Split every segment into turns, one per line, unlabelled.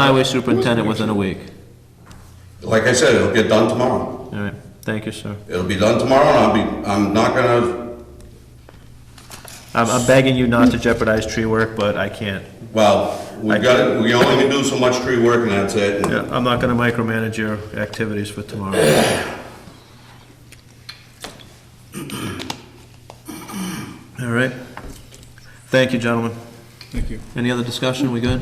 highway superintendent within a week.
Like I said, it'll get done tomorrow.
All right, thank you, sir.
It'll be done tomorrow, and I'll be, I'm not gonna,
I'm, I'm begging you not to jeopardize tree work, but I can't.
well, we
I-
got it, we only can do so much tree work, and that's it.
Yeah, I'm not gonna micromanage your activities for tomorrow. All right. Thank you, gentlemen.
Thank you.
Any other discussion? We good?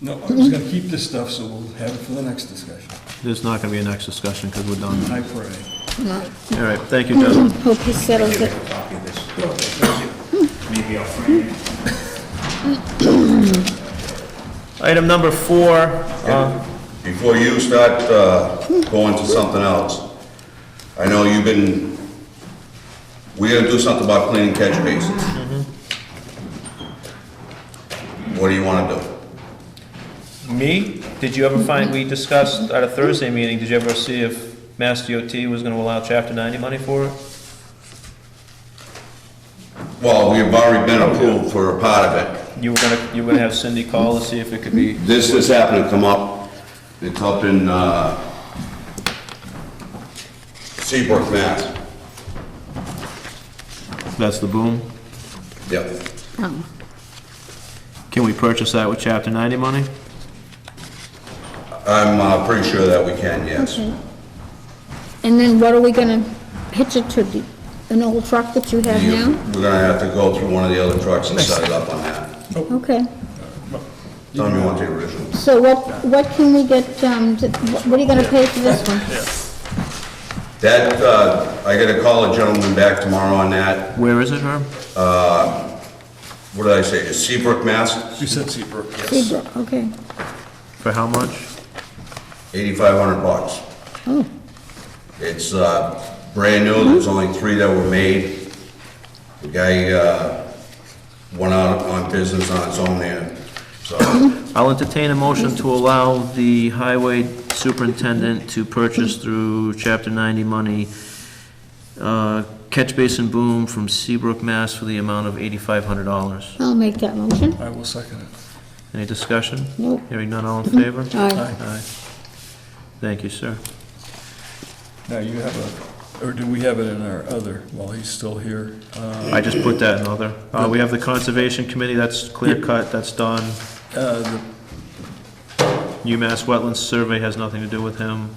No, I was gonna keep this stuff, so we'll have it for the next discussion.
There's not gonna be a next discussion, because we're done.
I pray.
All right, thank you, gentlemen.
Hope he settles it.
Copy of this. Maybe I'll frame it.
Item number four, uh,
Before you start uh, going to something else, I know you've been, we gotta do something about cleaning catch basins.
Mm-hmm.
What do you wanna do?
me, did you ever find, we discussed at a Thursday meeting, did you ever see if Mass DOT was gonna allow chapter ninety money for it?
Well, we have already been approved for a part of it.
You were gonna, you were gonna have Cindy call to see if it could be,
This just happened to come up, it's up in uh, Seabrook, Mass.
that's the boom.
Yep.
Oh,
Can we purchase that with chapter ninety money?
I'm uh, pretty sure that we can, yes.
okay. And then what are we gonna pitch it to, the- an old truck that you have
You-
now?
We're gonna have to go through one of the other trucks and set it up on that.
Okay,
Tell me you want the original.
so what, what can we get, um, to- what what are you gonna pay for this one?
That, uh, I gotta call a gentleman back tomorrow on that.
Where is it, Herb?
What did I say, is Seabrook, Mass?
You said Seabrook, yes.
Seabrook, okay.
For how much?
Eighty-five hundred bucks.
Oh,
It's, uh, brand new, there's only three that were made. The guy, uh, went out on business on his own there, so.
I'll entertain a motion to allow the highway superintendent to purchase through chapter ninety money, uh, catch basin boom from Seabrook, Mass. for the amount of eighty-five hundred dollars.
I'll make that motion.
I will second it.
Any discussion?
Nope.
Hearing none, all in favor?
Aye.
Aye.
Aye. Thank you, sir.
Now, you have a, or do we have it in our other, while he's still here? Uh,
I just put that in other. Uh, we have the conservation committee, that's clear cut, that's done.
uh, the-
UMass Wetlands Survey has nothing to do with him.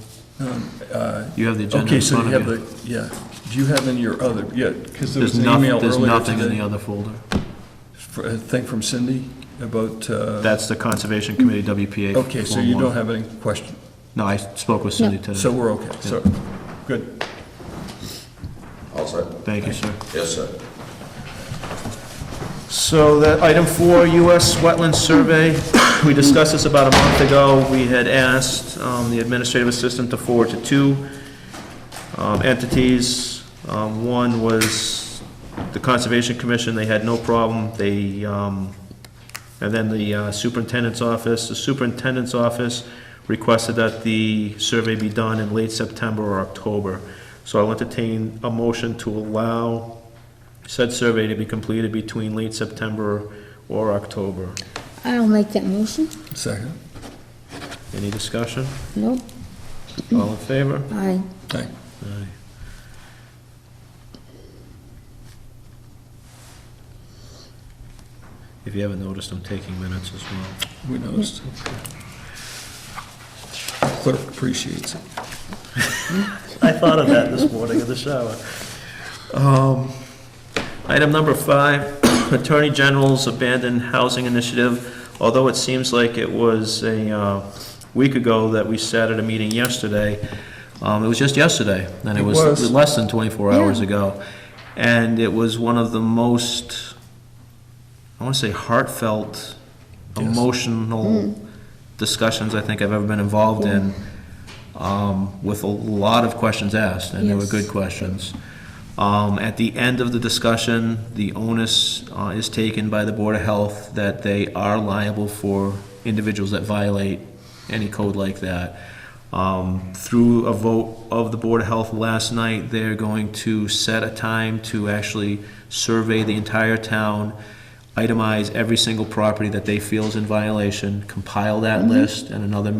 uh,
You have the agenda
Okay,
in
so
front
you
of
have
you.
the, yeah, do you have in your other, yeah, because there was
There's
an
nothing,
email
there's
earlier
nothing in the
today,
other folder.
for- a thing from Cindy about, uh,
That's the conservation committee, WPA.
okay, so you
411.
don't have any question?
No, I spoke with Cindy today.
So we're okay, so, good.
All set?
Thank you, sir.
Yes, sir.
So that, item four, US Wetland Survey, we discussed this about a month ago. We had asked um, the administrative assistant to forward to two um, entities. Um, One was the Conservation Commission, they had no problem. They, um, and then the uh, superintendent's office, the superintendent's office requested that the survey be done in late September or October. So I'll entertain a motion to allow said survey to be completed between late September or October.
I'll make that motion.
Second?
Any discussion?
Nope,
All in favor?
aye.
Aye.
Aye. If you haven't noticed, I'm taking minutes as well.
We noticed. Clerk appreciates it.
I thought of that this morning in the shower. Um, Item number five, Attorney General's Abandoned Housing Initiative. Although it seems like it was a uh, week ago that we sat at a meeting yesterday, um, it was just yesterday, and it
It
was
was.
less than 24 hours
Yeah.
ago. And it was one of the most, I want to say heartfelt,
Yes. Hmm.
emotional discussions I think I've ever been involved in, um, with a lot of questions asked, and they were
Yes.
good questions. Um, At the end of the discussion, the onus uh, is taken by the Board of Health that they are liable for individuals that violate any code like that. Um, Through a vote of the Board of Health last night, they're going to set a time to actually survey the entire town, itemize every single property that they feel is in violation, compile that list, and another